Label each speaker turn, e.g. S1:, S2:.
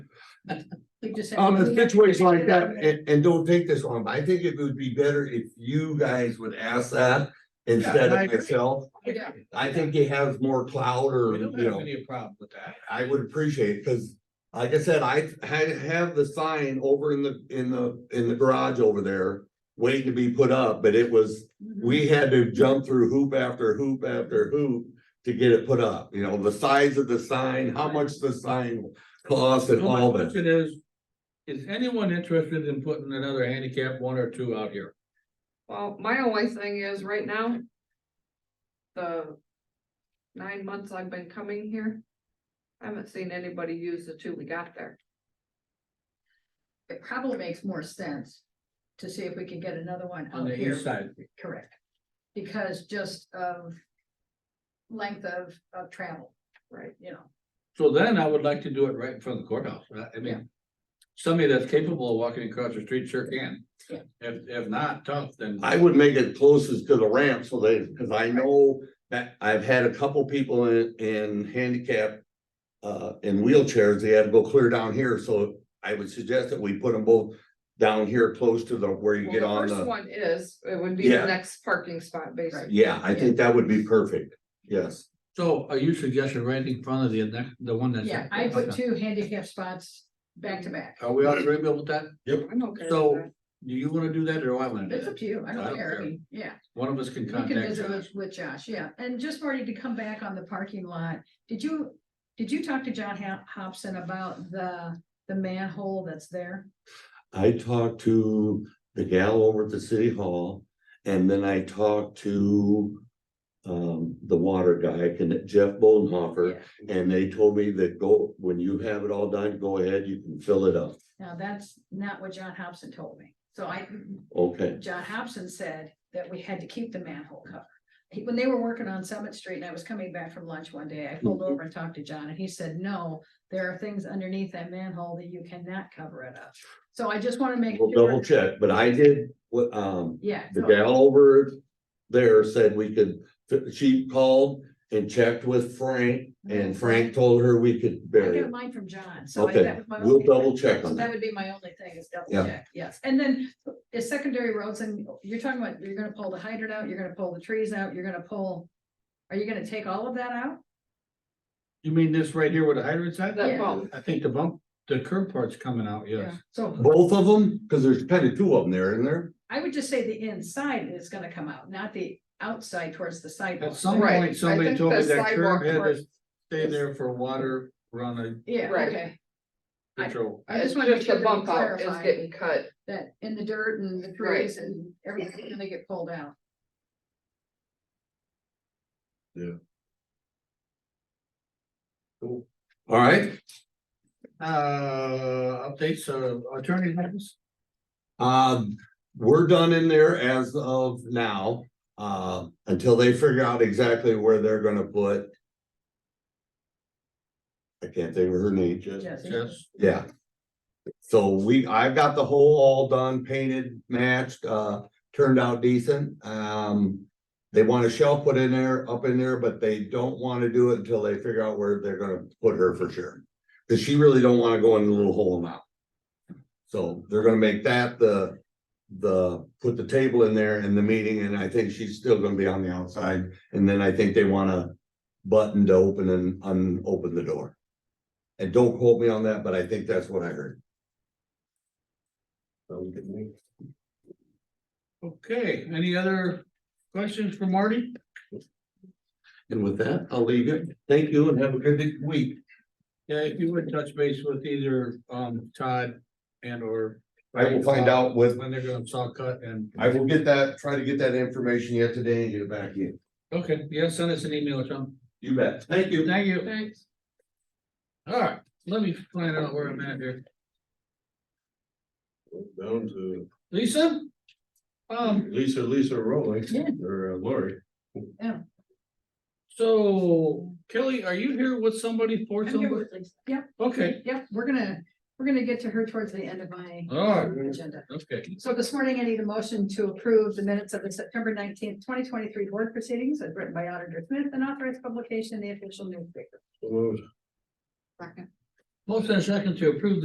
S1: We just have
S2: on the
S1: to-
S2: Um, situations like that, and, and don't take this wrong, but I think it would be better if you guys would ask that instead
S3: Yeah, I
S2: of
S3: agree.
S2: myself.
S1: Yeah.
S2: I think it has more clout or,
S3: We
S2: Um, you
S3: don't have
S2: know,
S3: any problem with that.
S2: I would appreciate, it cause like I said, I had, have the sign over in the, in the, in the garage over there waiting to be put up, but it was, we had to jump through hoop after hoop after hoop to get it put up, you know, the size of the sign, how much the sign costs and
S3: So my
S2: all that.
S3: question is, is anyone interested in putting another handicap one or two out here?
S4: Well, my only thing is right now. The nine months I've been coming here. I haven't seen anybody use the two we got there.
S1: It probably makes more sense to see if we can get another one
S3: On
S1: out
S3: the
S1: here.
S3: east side,
S1: Correct. Because just of length of, of travel,
S4: Right.
S1: you know,
S3: so then I would like to do it right in front of the courthouse, I- I mean. Somebody that's capable of walking across the street sure can.
S1: Yeah.
S3: If, if not, tough, then.
S2: I would make it closest to the ramp so they, because I know that I've had a couple people in, in handicap. Uh, in wheelchairs, they had to go clear down here, so I would suggest that we put them both down here close to the, where you
S4: Well,
S2: get on
S4: the first
S2: the.
S4: one is, it would be the
S2: Yeah.
S4: next parking spot, basically.
S2: Yeah, I think that would be perfect, yes.
S3: So are you suggesting right in front of the, next- the one that's? Oh,
S1: yeah, I put two handicap spots back to back.
S3: Are we all agreeable with that?
S4: I'm okay
S3: So-
S4: with
S3: Do you wanna do that or do I wanna do
S1: It's up
S3: that?
S1: to you, I
S3: I
S1: don't
S3: don't
S1: care,
S3: care.
S1: I mean, yeah.
S3: One of us can
S1: We can
S3: contact.
S1: visit
S3: Josh.
S1: with, with Josh, yeah, and just for you to come back on the parking lot, did you, did you talk to John Hop- Hobson about the, the manhole that's there?
S2: I talked to the gal over at the city hall, and then I talked to. Um, the water guy, can- Jeff Bodenhofer, and they told me that go, when you have it all done, go ahead, you can fill it up.
S1: Now, that's not what John Hobson told me, so I,
S2: Okay,
S1: John Hobson said that we had to keep the manhole cover. He- When they were working on Summit Street and I was coming back from lunch one day, I pulled
S2: Mm-hmm.
S1: over and talked to John and he said, no, there are things underneath that manhole that you cannot cover it up. So I just wanna make.
S2: we'll
S1: sure-
S2: double check, but I did what, um,
S1: Yeah.
S2: the
S1: so-
S2: gal over there said we could, she called and checked with Frank, and Frank told her we could
S1: Mm-hmm. I
S2: bury
S1: got
S2: it.
S1: mine from John, so. I- that
S2: Okay,
S1: was my
S2: we'll
S1: only-
S2: double check
S1: So
S2: on
S1: that
S2: that.
S1: would be my only thing is double
S2: Yeah.
S1: check, yes. And then is secondary roads and you're talking about, you're gonna pull the hydrant out, you're gonna pull the trees out, you're gonna pull. Are you gonna take all of that out?
S3: You mean this right here with the hydrant
S4: that.
S3: side?
S4: That
S1: Yeah.
S4: bump,
S3: I think the bump, the curb part's coming out, yes.
S1: So
S2: Both of them, because there's kind of two of them there, isn't there?
S1: I would just say the inside is gonna come out, not the outside towards the sidewalk.
S3: At some
S4: Right,
S3: point,
S4: I
S3: somebody
S4: think
S3: told me
S4: the
S3: that curb
S4: sidewalk
S3: had
S4: part-
S3: to stay there for water run a
S1: Yeah,
S4: Right.
S1: okay, I-
S3: control.
S1: I
S4: it's
S1: just wanna make
S4: just
S1: sure
S4: the
S1: that we
S4: bump out is
S1: clarify.
S4: getting cut.
S1: that in the dirt and the trees and everything's gonna get pulled out.
S2: All right,
S3: Uh, updates, uh, attorney matters?
S2: um, we're done in there as of now. Uh, until they figure out exactly where they're gonna put. I can't think of her name, just.
S1: Jesse?
S3: Yes.
S2: Yeah. So we, I've got the hole all done, painted, matched, uh, turned out decent. Um. They want a shelf put in there, up in there, but they don't want to do it until they figure out where they're gonna put her for sure. Cause she really don't want to go in the little hole now. So they're gonna make that the, the, put the table in there in the meeting, and I think she's still gonna be on the outside. And then I think they want a button to open and unopen the door. And don't quote me on that, but I think that's what I heard. So we can make-
S3: Okay, any other questions for Marty?
S2: And with that, I'll leave you. Thank you and have a good week.
S3: Yeah, if you would touch base with either, um, Todd and or.
S2: I will find out with,
S3: When they're gonna saw cut and.
S2: I will get that, try to get that information yet today and get it back in.
S3: Okay, yeah, send us an email or something.
S2: You bet. Thank you.
S3: Thank you.
S4: Thanks.
S3: All right, let me find out where I'm at here.
S5: Down to
S3: Lisa? Um,
S5: Lisa, Lisa Rowley,
S1: Yeah.
S5: or uh, Lori.
S3: so Kelly, are you here with somebody for
S1: I'm here
S3: somebody?
S1: with Lisa. Yep,
S3: Okay,
S1: yep, we're gonna, we're gonna get to her towards the end of my
S3: all right,
S1: agenda.
S3: okay.
S1: So this morning, I need a motion to approve the minutes of the September nineteenth, twenty twenty-three board proceedings as written by Auditor Smith and authorized publication in the official newspaper.
S5: Who knows?
S3: Motion and second to approve